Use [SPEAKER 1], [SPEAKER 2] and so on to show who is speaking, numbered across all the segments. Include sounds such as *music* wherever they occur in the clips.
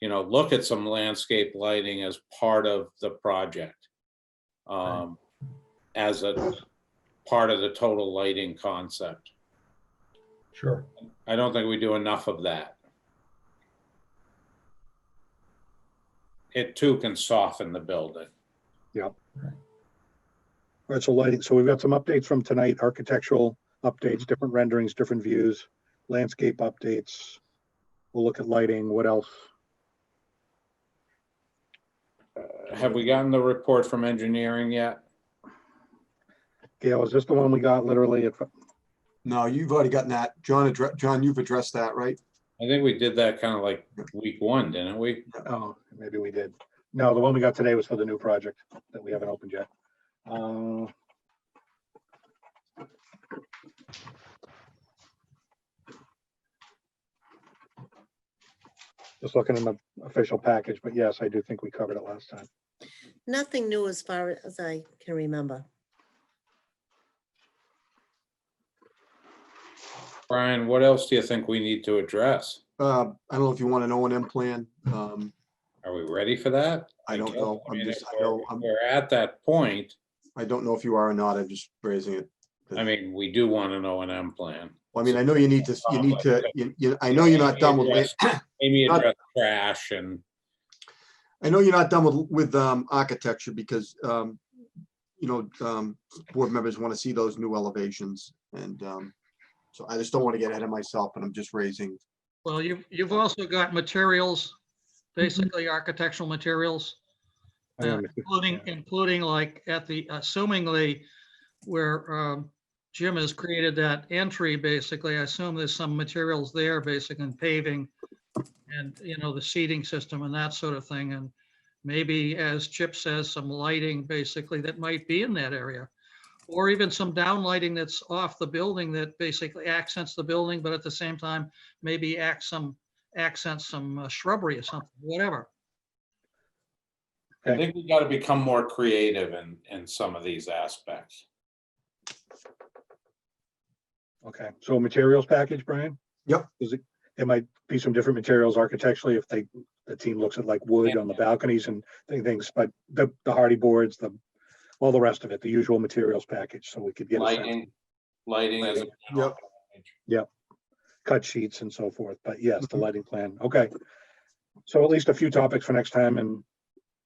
[SPEAKER 1] you know, look at some landscape lighting as part of the project. Um, as a part of the total lighting concept.
[SPEAKER 2] Sure.
[SPEAKER 1] I don't think we do enough of that. It too can soften the building.
[SPEAKER 3] All right, so lighting, so we've got some updates from tonight, architectural updates, different renderings, different views, landscape updates. We'll look at lighting, what else?
[SPEAKER 1] Uh, Have we gotten the report from engineering yet?
[SPEAKER 3] Gail, is this the one we got literally? at-
[SPEAKER 4] No, you've already gotten that. John, addre- John, you've addressed that, right?
[SPEAKER 1] I think we did that kind of like week one, didn't we?
[SPEAKER 3] Oh, maybe we did. No, the one we got today was for the new project that we haven't opened yet. Uh, Just looking in the official package, but yes, I do think we covered it last time.
[SPEAKER 5] Nothing new as far as I can remember.
[SPEAKER 1] Brian, what else do you think we need to address?
[SPEAKER 4] Uh, I don't know if you want an O and M plan. Um,
[SPEAKER 1] Are we ready for that?
[SPEAKER 4] I don't
[SPEAKER 1] guess,
[SPEAKER 4] know.
[SPEAKER 1] I
[SPEAKER 4] I'm
[SPEAKER 1] mean,
[SPEAKER 4] just,
[SPEAKER 1] if
[SPEAKER 4] I know,
[SPEAKER 1] we're-
[SPEAKER 4] I'm,
[SPEAKER 1] We're at that point.
[SPEAKER 4] I don't know if you are or not. I'm just raising it.
[SPEAKER 1] I mean, we do want an O and M plan.
[SPEAKER 4] Well, I mean, I know you need to, you need to, you, you, I know you're not done with, land-
[SPEAKER 1] Maybe
[SPEAKER 4] Not-
[SPEAKER 1] address trash and,
[SPEAKER 4] I know you're not done with, with, um, architecture because, um, you know, um, board members want to see those new elevations and, um, so I just don't want to get ahead of myself, but I'm just raising,
[SPEAKER 2] Well, you've, you've also got materials, basically architectural materials,
[SPEAKER 3] I don't
[SPEAKER 2] Yeah.
[SPEAKER 3] know if-
[SPEAKER 2] including, including like at the, assumingly, where um, Jim has created that entry, basically, I assume there's some materials there, basically, and paving and, you know, the seating system and that sort of thing, and maybe, as Chip says, some lighting, basically, that might be in that area. Or even some downlighting that's off the building that basically accents the building, but at the same time, maybe act some, accent some uh, shrubbery or something, whatever.
[SPEAKER 1] I think we gotta become more creative in, in some of these aspects.
[SPEAKER 3] Okay, so materials package, Brian?
[SPEAKER 4] Yep.
[SPEAKER 3] Is it, it might be some different materials architecturally if they, the team looks at like wood on the balconies and thi- things, but the, the hardy boards, the, all the rest of it, the usual materials package, so we could get a sense,
[SPEAKER 1] Lighting, lighting as a.
[SPEAKER 4] Yep.
[SPEAKER 3] cut sheets and so forth, but yes,
[SPEAKER 4] Mm-hmm.
[SPEAKER 3] the lighting plan, okay. So at least a few topics for next time and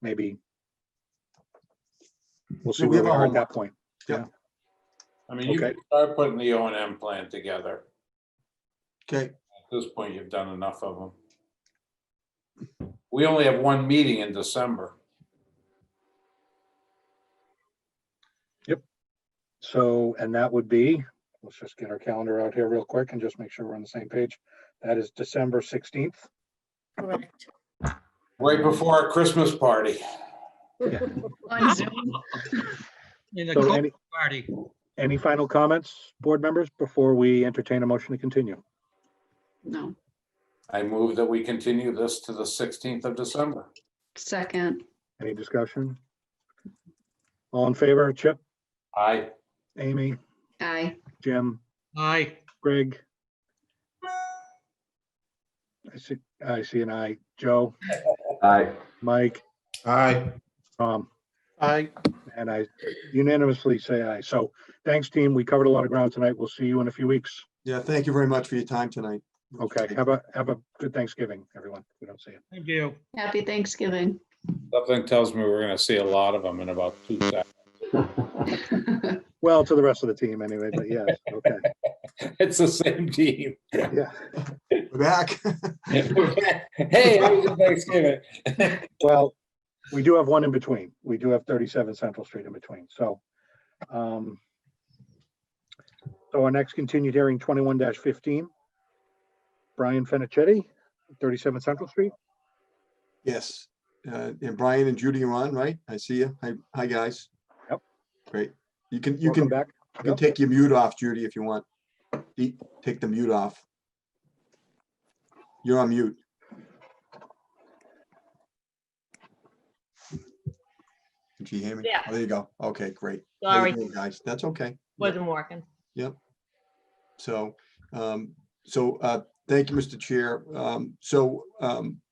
[SPEAKER 3] maybe we'll see
[SPEAKER 4] Yeah, we
[SPEAKER 3] where
[SPEAKER 4] have
[SPEAKER 3] we
[SPEAKER 4] um, our
[SPEAKER 3] are at
[SPEAKER 4] homework.
[SPEAKER 3] that point.
[SPEAKER 1] I mean, you
[SPEAKER 3] Okay.
[SPEAKER 1] can start putting the O and M plan together.
[SPEAKER 4] okay?
[SPEAKER 1] At this point, you've done enough of them. We only have one meeting in December.
[SPEAKER 3] So, and that would be, let's just get our calendar out here real quick and just make sure we're on the same page. That is December sixteenth.
[SPEAKER 5] Correct.
[SPEAKER 1] Right before our Christmas party.
[SPEAKER 6] On Zoom.
[SPEAKER 2] *laughs* In the
[SPEAKER 3] So
[SPEAKER 2] cocoa
[SPEAKER 3] any,
[SPEAKER 2] party.
[SPEAKER 3] any final comments, board members, before we entertain a motion to continue?
[SPEAKER 6] No,
[SPEAKER 1] I move that we continue this to the sixteenth of December.
[SPEAKER 6] second.
[SPEAKER 3] Any discussion? All in favor, Chip,
[SPEAKER 1] Aye.
[SPEAKER 3] Amy,
[SPEAKER 6] Aye.
[SPEAKER 3] Jim,
[SPEAKER 2] Aye.
[SPEAKER 3] Greg? I see, I see an aye. Joe? Aye. Mike?
[SPEAKER 4] Aye.
[SPEAKER 3] Tom?
[SPEAKER 2] Aye.
[SPEAKER 3] And I unanimously say aye. So thanks, team. We covered a lot of ground tonight. We'll see you in a few weeks.
[SPEAKER 4] Yeah, thank you very much for your time tonight.
[SPEAKER 3] Okay, have a, have a good Thanksgiving, everyone. if We don't see you.
[SPEAKER 2] Thank you.
[SPEAKER 6] Happy Thanksgiving.
[SPEAKER 1] Something tells me we're gonna see a lot of them in about two seconds.
[SPEAKER 3] Well, to the rest of the team anyway, but yes, okay,
[SPEAKER 1] It's the same team. *laughs*
[SPEAKER 3] yeah.
[SPEAKER 4] We're back.
[SPEAKER 1] Hey, how was your Thanksgiving?
[SPEAKER 3] Well, we do have one in between. We do have thirty-seven Central Street in between, so. um So our next continued hearing, twenty-one fifteen. Brian Fenichetti, thirty-seven Central Street.
[SPEAKER 4] Yes. Uh, And Brian and Judy are on, right? I see you. Hi, hi, guys.
[SPEAKER 3] Yep.
[SPEAKER 4] Great. You can, you can,
[SPEAKER 3] Welcome Back.
[SPEAKER 4] you can
[SPEAKER 3] Yep.
[SPEAKER 4] take your mute off, Judy, if you want. E- Take the mute off. You're on mute. Did you hear me?
[SPEAKER 7] Yeah.
[SPEAKER 4] Oh, There you go. Okay, great. How you
[SPEAKER 7] Sorry,
[SPEAKER 4] doing, Guys, that's okay.
[SPEAKER 7] wasn't working.
[SPEAKER 4] So, um, so, uh, thank you, Mr. Chair. Um, so, um,